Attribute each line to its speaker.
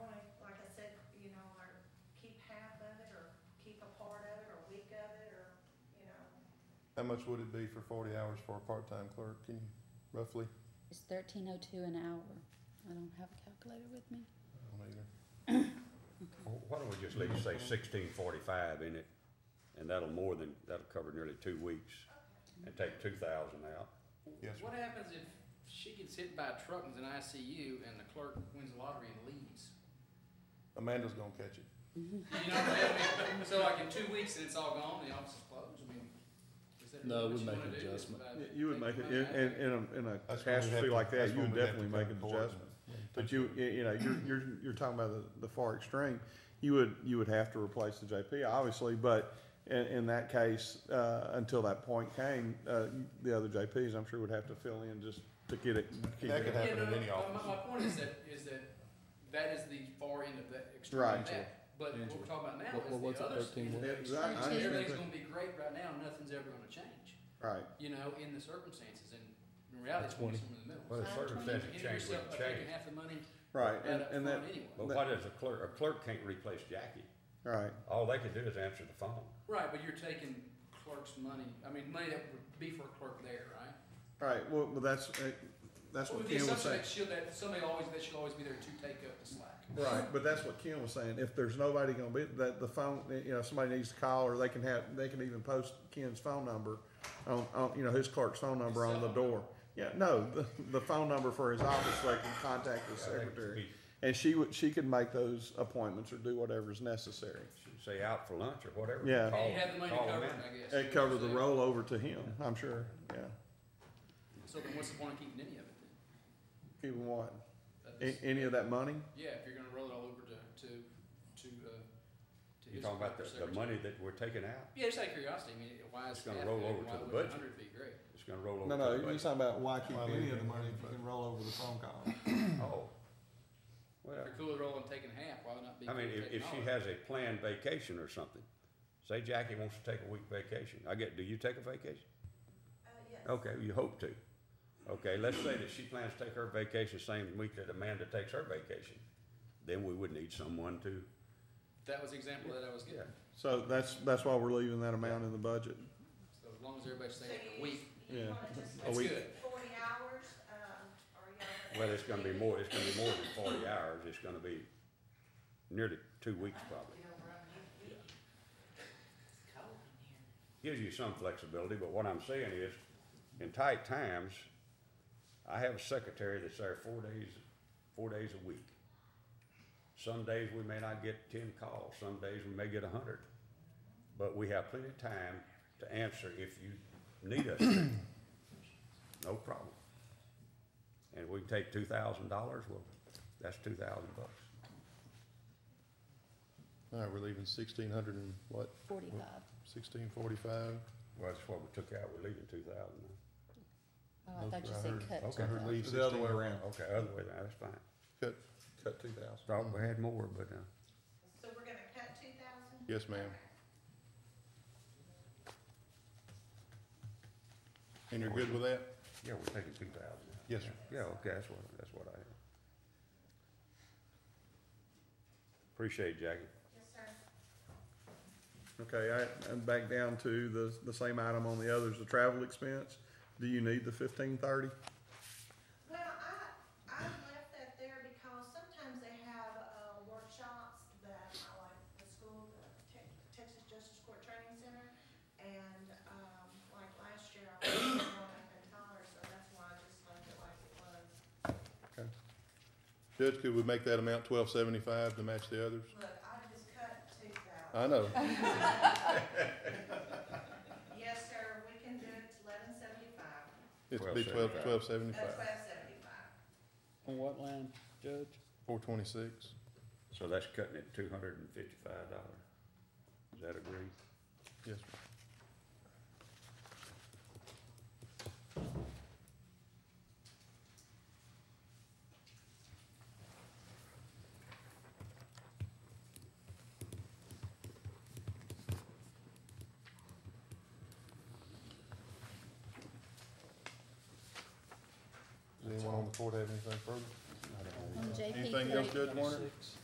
Speaker 1: How much would it be for forty hours for a part-time clerk, can you, roughly?
Speaker 2: It's thirteen oh two an hour. I don't have a calculator with me.
Speaker 1: I don't either.
Speaker 3: Wh- Why don't we just leave, say sixteen forty-five in it, and that'll more than, that'll cover nearly two weeks, and take two thousand out.
Speaker 1: Yes, sir.
Speaker 4: What happens if she gets hit by a truck and's in ICU and the clerk wins the lottery and leaves?
Speaker 1: Amanda's gonna catch it.
Speaker 4: You know what I mean? So like in two weeks and it's all gone, the office is closed, I mean, is that
Speaker 5: No,
Speaker 4: what
Speaker 5: we
Speaker 4: you
Speaker 5: make
Speaker 4: wanna
Speaker 5: an
Speaker 4: do?
Speaker 5: adjustment.
Speaker 4: About
Speaker 6: You- You would make, it
Speaker 4: taking
Speaker 6: in,
Speaker 4: money
Speaker 6: in,
Speaker 4: out?
Speaker 6: in a,
Speaker 1: That's when
Speaker 6: in a
Speaker 1: we'd have
Speaker 6: catastrophe
Speaker 1: to-
Speaker 6: like that,
Speaker 1: that's
Speaker 6: you
Speaker 1: when we'd
Speaker 6: would
Speaker 1: have to
Speaker 6: definitely
Speaker 1: go
Speaker 6: make
Speaker 1: to
Speaker 6: an
Speaker 1: court and-
Speaker 6: adjustment. But you, you you know, you're, you're, you're talking about the, the far extreme, you would, you would have to replace the JP, obviously, but in, in that case, uh, until that point came, uh, the other JPs, I'm sure would have to fill in just to get it. keep
Speaker 1: That
Speaker 6: it
Speaker 1: could
Speaker 6: up.
Speaker 1: happen
Speaker 4: Yeah, no,
Speaker 1: in
Speaker 4: no,
Speaker 1: any
Speaker 4: but my-
Speaker 1: office.
Speaker 4: My point is that, is that, that is the far end of that extreme
Speaker 6: Right.
Speaker 4: of that. But what we're
Speaker 5: Angela.
Speaker 4: talking about now
Speaker 5: What-
Speaker 4: is
Speaker 5: what's
Speaker 4: the
Speaker 5: that
Speaker 4: other.
Speaker 5: 13
Speaker 4: is
Speaker 6: Yeah,
Speaker 4: the
Speaker 6: right,
Speaker 4: extreme.
Speaker 6: I understand
Speaker 4: Everything's
Speaker 6: that.
Speaker 4: gonna be great right now, nothing's ever gonna change,
Speaker 6: Right,
Speaker 4: you know, in the circumstances, and in reality, it's gonna be somewhere in the middle.
Speaker 3: Well, the
Speaker 2: Five
Speaker 3: circumstances
Speaker 4: You get
Speaker 3: change
Speaker 4: yourself
Speaker 3: with
Speaker 4: by
Speaker 3: the
Speaker 4: taking
Speaker 3: change.
Speaker 4: half the money
Speaker 6: right,
Speaker 4: right
Speaker 6: and,
Speaker 4: up
Speaker 6: and that,
Speaker 4: front anyway.
Speaker 3: But why does a clerk, a clerk can't replace Jackie?
Speaker 6: right,
Speaker 3: All they can do is answer the phone.
Speaker 4: Right, but you're taking clerk's money, I mean, money that would be for a clerk there, right?
Speaker 6: right, well, well, that's, uh, that's
Speaker 4: Well,
Speaker 6: what
Speaker 4: With
Speaker 6: Ken
Speaker 4: the
Speaker 6: was
Speaker 4: assumption
Speaker 6: saying.
Speaker 4: that she'll, that somebody always, that she'll always be there to take up the slack.
Speaker 6: Right, but that's what Ken was saying, if there's nobody gonna be, that the phone, you know, somebody needs to call, or they can have, they can even post Ken's phone number on, on, you know, his clerk's phone number on the door. Yeah, no, the, the phone number for his office, they can contact the
Speaker 3: I think it'd
Speaker 6: secretary,
Speaker 3: be-
Speaker 6: and she would, she could make those appointments or do whatever's necessary.
Speaker 3: Say out for lunch or whatever.
Speaker 6: Yeah.
Speaker 3: Call-
Speaker 4: And you have the money
Speaker 3: call them
Speaker 4: covered,
Speaker 3: in.
Speaker 4: I guess.
Speaker 6: Oh. It covers the rollover to him, I'm sure, yeah,
Speaker 4: So then what's the point of keeping any of it then?
Speaker 6: keep him what,
Speaker 4: That
Speaker 6: a-
Speaker 4: is-
Speaker 6: any of that money?
Speaker 4: Yeah, if you're gonna roll it all over to, to, to, uh, to his.
Speaker 3: You're talking about the,
Speaker 4: clerk
Speaker 3: the
Speaker 4: or secretary.
Speaker 3: money that we're taking out,
Speaker 4: Yeah, just out of curiosity, I mean, why is
Speaker 3: It's gonna
Speaker 4: half
Speaker 3: roll
Speaker 4: good,
Speaker 3: over
Speaker 4: why
Speaker 3: to the
Speaker 4: would
Speaker 3: budget.
Speaker 4: hundred be great?
Speaker 3: it's gonna roll over.
Speaker 6: No,
Speaker 3: to
Speaker 6: no,
Speaker 3: the
Speaker 6: you're
Speaker 3: budget.
Speaker 6: talking about why keep
Speaker 1: Why
Speaker 6: any
Speaker 1: leave
Speaker 6: of
Speaker 1: it?
Speaker 6: the money if you can roll over the phone call.
Speaker 3: Oh. Well,
Speaker 4: If you're cool with rolling, taking half, why not be?
Speaker 3: I mean,
Speaker 4: cool
Speaker 3: if,
Speaker 4: taking
Speaker 3: if she
Speaker 4: all of it?
Speaker 3: has a planned vacation or something, say Jackie wants to take a week vacation, I get, do you take a vacation?
Speaker 7: Uh,
Speaker 3: Okay, you hope to. Okay, let's say that she plans to take her vacation same week that Amanda takes her vacation, then we would need someone to,
Speaker 4: That was the example that I was
Speaker 3: yeah.
Speaker 4: getting,
Speaker 6: So that's, that's why we're leaving that amount in the budget.
Speaker 4: so as long as everybody
Speaker 7: So
Speaker 4: stays
Speaker 7: you,
Speaker 4: a week,
Speaker 7: you
Speaker 6: Yeah.
Speaker 7: wanna just
Speaker 6: A
Speaker 4: that's
Speaker 6: week.
Speaker 4: good.
Speaker 7: forty hours, um, or y'all?
Speaker 3: Well, it's gonna be more, it's gonna be more than forty hours, it's gonna be nearly two weeks probably. Gives you some flexibility, but what I'm saying is, in tight times, I have a secretary that's there four days, four days a week. Some days we may not get ten calls, some days we may get a hundred, but we have plenty of time to answer if you need us. to. No problem. And we can take two thousand dollars, well, that's two thousand bucks.
Speaker 1: All right, we're leaving sixteen hundred and what,
Speaker 2: Forty-five.
Speaker 1: sixteen forty-five?
Speaker 3: Well, that's what we took out, we're leaving two thousand.
Speaker 2: Oh, I thought you said cut.
Speaker 1: Okay, her
Speaker 2: 2,000.
Speaker 1: leave
Speaker 6: The other way
Speaker 1: sixteen,
Speaker 6: around,
Speaker 3: Okay, other way, around, that's fine.
Speaker 1: cut,
Speaker 6: cut two thousand.
Speaker 3: Thought we had more, but, uh,
Speaker 7: So we're gonna cut two thousand?
Speaker 1: yes, ma'am. And you're good with that?
Speaker 3: yeah, we're taking two thousand out.
Speaker 1: Yes, sir.
Speaker 3: Yeah, okay, that's what, that's what I had. Appreciate it, Jackie.
Speaker 7: Yes, sir.
Speaker 6: Okay, I, and back down to the, the same item on the others, the travel expense. Do you need the fifteen thirty?
Speaker 7: Well, I, I left that there because sometimes they have, uh, workshops that I like, the school, the Tex- Texas Justice Court Training Center, and, um, like last year, I was going up in Tyler, so that's why I just left it like it was.
Speaker 1: Judge, could we make that amount twelve seventy-five to match the others?
Speaker 7: Look, I just cut two thousand.
Speaker 1: I know, Uh.
Speaker 7: Yes, sir, we can do it to eleven seventy-five, uh,
Speaker 1: it's be twelve, twelve seventy-five,
Speaker 7: twelve seventy-five.
Speaker 5: On what line, Judge?
Speaker 1: four twenty-six.
Speaker 3: So that's cutting it two hundred and fifty-five dollars. Is that agreed?
Speaker 1: Yes, ma'am. Does anyone on the court have anything further?
Speaker 2: On JP
Speaker 1: Anything else,
Speaker 2: three, Um,
Speaker 1: Judge Warner?